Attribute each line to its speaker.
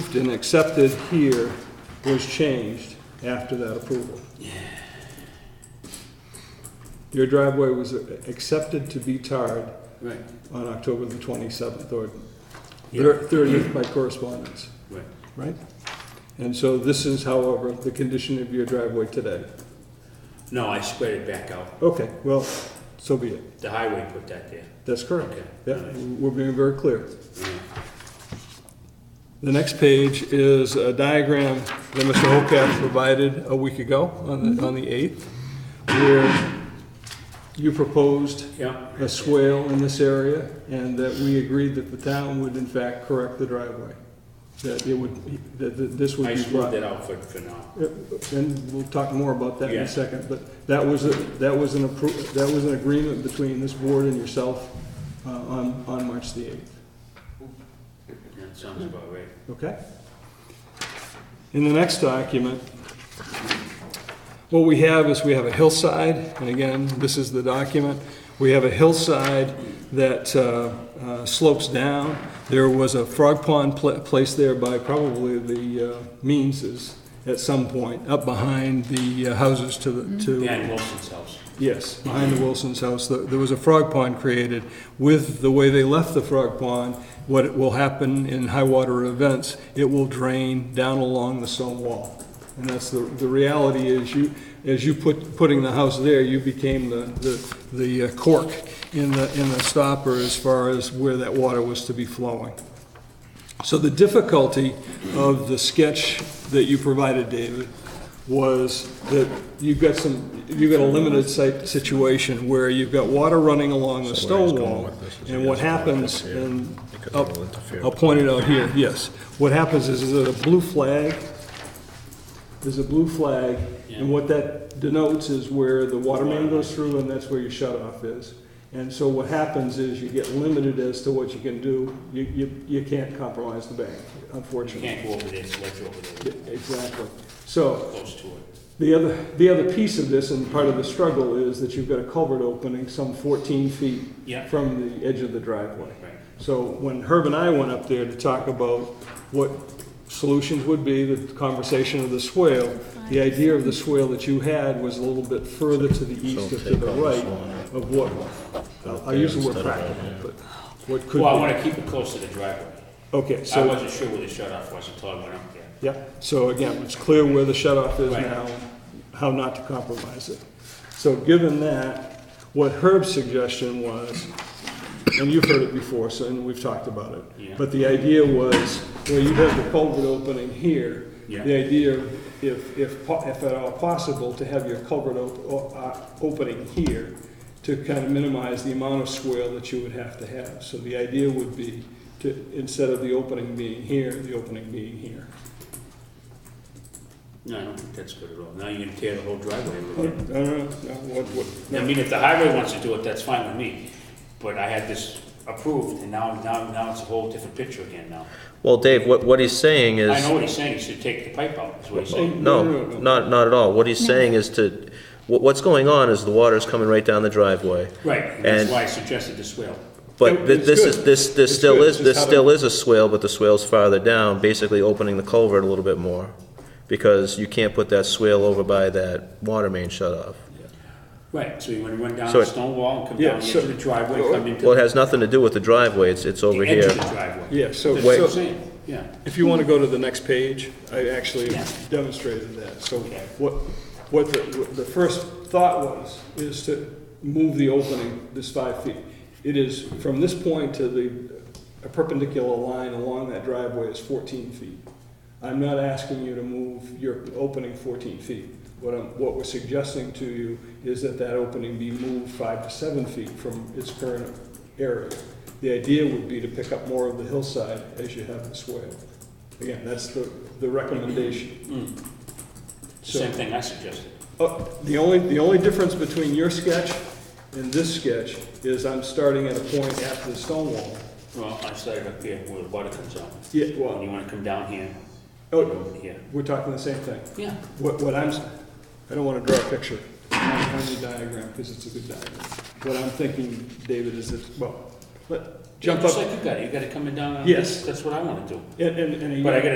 Speaker 1: approved and accepted here was changed after that approval. Your driveway was accepted to be tarred
Speaker 2: Right,
Speaker 1: on October the 27th or thir- 30th by correspondence,
Speaker 2: right.
Speaker 1: right? And so this is, however, the condition of your driveway today.
Speaker 2: No, I squared it back out.
Speaker 1: Okay, well, so be it.
Speaker 2: The highway put that there.
Speaker 1: That's correct.
Speaker 2: Okay.
Speaker 1: Yeah, we're being very clear. The next page is a diagram that Mr. Holcraft provided a week ago on the, on the 8th, where you proposed
Speaker 2: Yeah,
Speaker 1: a swale in this area, and that we agreed that the town would in fact correct the driveway. That it would, that that this would
Speaker 2: I
Speaker 1: be
Speaker 2: smoothed
Speaker 1: brought.
Speaker 2: it out for, for now.
Speaker 1: And we'll talk more about that in
Speaker 2: Yeah.
Speaker 1: a second, but that was, a- that was an appro, that was an agreement between this board and yourself uh, on, on March the 8th.
Speaker 2: That sounds about right.
Speaker 1: Okay. In the next document, what we have is we have a hillside, and again, this is the document. We have a hillside that uh, uh, slopes down. There was a frog pond pla- placed there by probably the uh, Meanses at some point, up behind the uh, houses to the, to.
Speaker 2: Dan Wilson's house.
Speaker 1: Yes, behind the Wilson's house, th- there was a frog pond created. With the way they left the frog pond, what will happen in high water events, it will drain down along the stone wall. And that's the, the reality is you, as you put, putting the house there, you became the, the the uh, cork in the, in the stopper as far as where that water was to be flowing. So the difficulty of the sketch that you provided, David, was that you've got some, you've got a limited site situation where you've got water running along the
Speaker 3: where he's
Speaker 1: stone
Speaker 3: going
Speaker 1: wall.
Speaker 3: with this is he
Speaker 1: And what
Speaker 3: doesn't want it
Speaker 1: happens,
Speaker 3: to interfere,
Speaker 1: and
Speaker 3: because
Speaker 1: I'll
Speaker 3: it'll interfere
Speaker 1: I'll
Speaker 3: with
Speaker 1: point it out here, yes. What happens is, is that a blue flag, there's a blue flag,
Speaker 2: Yeah.
Speaker 1: and what that denotes is where the water main goes through, and that's where your shut-off is. And so what happens is you get limited as to what you can do. You, you, you can't compromise the bank,
Speaker 2: You
Speaker 1: unfortunately.
Speaker 2: can't go over there, it's ledge over there,
Speaker 1: Yeah, Exactly. So
Speaker 2: close to it.
Speaker 1: the other, the other piece of this and part of the struggle is that you've got a culvert opening some 14 feet
Speaker 2: Yeah.
Speaker 1: from the edge of the driveway.
Speaker 2: Right.
Speaker 1: So when Herb and I went up there to talk about what solutions would be, the conversation of the swale, the idea of the swale that you had was a little bit further to the east and to the right of what, I'll- I'll use the word practical, but what could
Speaker 2: Well, I
Speaker 1: be.
Speaker 2: wanna keep it close to the driveway.
Speaker 1: Okay,
Speaker 2: I
Speaker 1: so,
Speaker 2: wasn't sure where the shut off was until I went up there.
Speaker 1: yeah, so again, it's clear where the shut-off is
Speaker 2: Right.
Speaker 1: now, how not to compromise it. So given that, what Herb's suggestion was, and you've heard it before, so, and we've talked about it.
Speaker 2: Yeah.
Speaker 1: But the idea was, well, you have the culvert opening here.
Speaker 2: Yeah.
Speaker 1: The idea, if, if, po- if at all possible, to have your culvert op- o- uh, opening here to kind of minimize the amount of swale that you would have to have. So the idea would be to, instead of the opening being here, the opening being here.
Speaker 2: No, I don't think that's good at all. Now you're gonna tear the whole driveway
Speaker 1: I
Speaker 2: over there.
Speaker 1: don't know, no, what, what,
Speaker 2: I mean, if the highway wants to do it, that's fine with me, but I had this approved, and now, now, now it's a whole different picture again now.
Speaker 4: Well, Dave, what, what he's saying
Speaker 2: I know
Speaker 4: is,
Speaker 2: what he's saying, he should take the pipe out, is what he's saying.
Speaker 4: no,
Speaker 1: No, no, no.
Speaker 4: not, not at all. What he's saying is to, what, what's going on is the water's coming right down the driveway.
Speaker 2: Right, and that's
Speaker 4: And-
Speaker 2: why I suggested the swale.
Speaker 4: But thi-
Speaker 1: It's
Speaker 4: this is,
Speaker 1: good.
Speaker 4: this,
Speaker 1: It's
Speaker 4: this still
Speaker 1: good.
Speaker 4: is,
Speaker 1: It's
Speaker 4: this
Speaker 1: just how
Speaker 4: still is a swale, but the swale's farther down, basically opening the culvert a little bit more. Because you can't put that swale over by that water main shut off.
Speaker 2: Right, so you wanna run down
Speaker 4: So
Speaker 2: the
Speaker 4: it-
Speaker 2: stone wall and come
Speaker 1: Yeah,
Speaker 2: down the edge
Speaker 1: so-
Speaker 2: of the driveway, come into
Speaker 4: Well, it has nothing to do with the driveway, it's, it's over
Speaker 2: the edge
Speaker 4: here.
Speaker 2: of the driveway.
Speaker 1: yeah, so.
Speaker 2: That's what
Speaker 1: so-
Speaker 2: I'm saying, yeah.
Speaker 1: If you want to go to the next page, I actually
Speaker 2: Yeah.
Speaker 1: demonstrated that. So
Speaker 2: Okay.
Speaker 1: what, what the, what the first thought was, is to move the opening this five feet. It is, from this point to the a perpendicular line along that driveway is 14 feet. I'm not asking you to move your opening 14 feet. What I'm, what we're suggesting to you is that that opening be moved five to seven feet from its current area. The idea would be to pick up more of the hillside as you have the swale. Again, that's the, the recommendation.
Speaker 2: It's the Same thing I suggested.
Speaker 1: Uh, The only, the only difference between your sketch and this sketch is I'm starting at a point after the stone wall.
Speaker 2: Well, I started up here where the water comes out,
Speaker 1: Yeah,
Speaker 2: and
Speaker 1: well,
Speaker 2: you wanna come down here,
Speaker 1: oh,
Speaker 2: over here.
Speaker 1: we're talking the same thing.
Speaker 2: Yeah.
Speaker 1: What, what I'm, s- I don't want to draw a picture on on the diagram, because it's a good diagram. What I'm thinking, David, is that, well, let, jump
Speaker 2: Just
Speaker 1: up,
Speaker 2: like you got it, you got it coming down, on
Speaker 1: Yes.
Speaker 2: this, that's what I wanna do.
Speaker 1: and, and. and you-
Speaker 2: But I gotta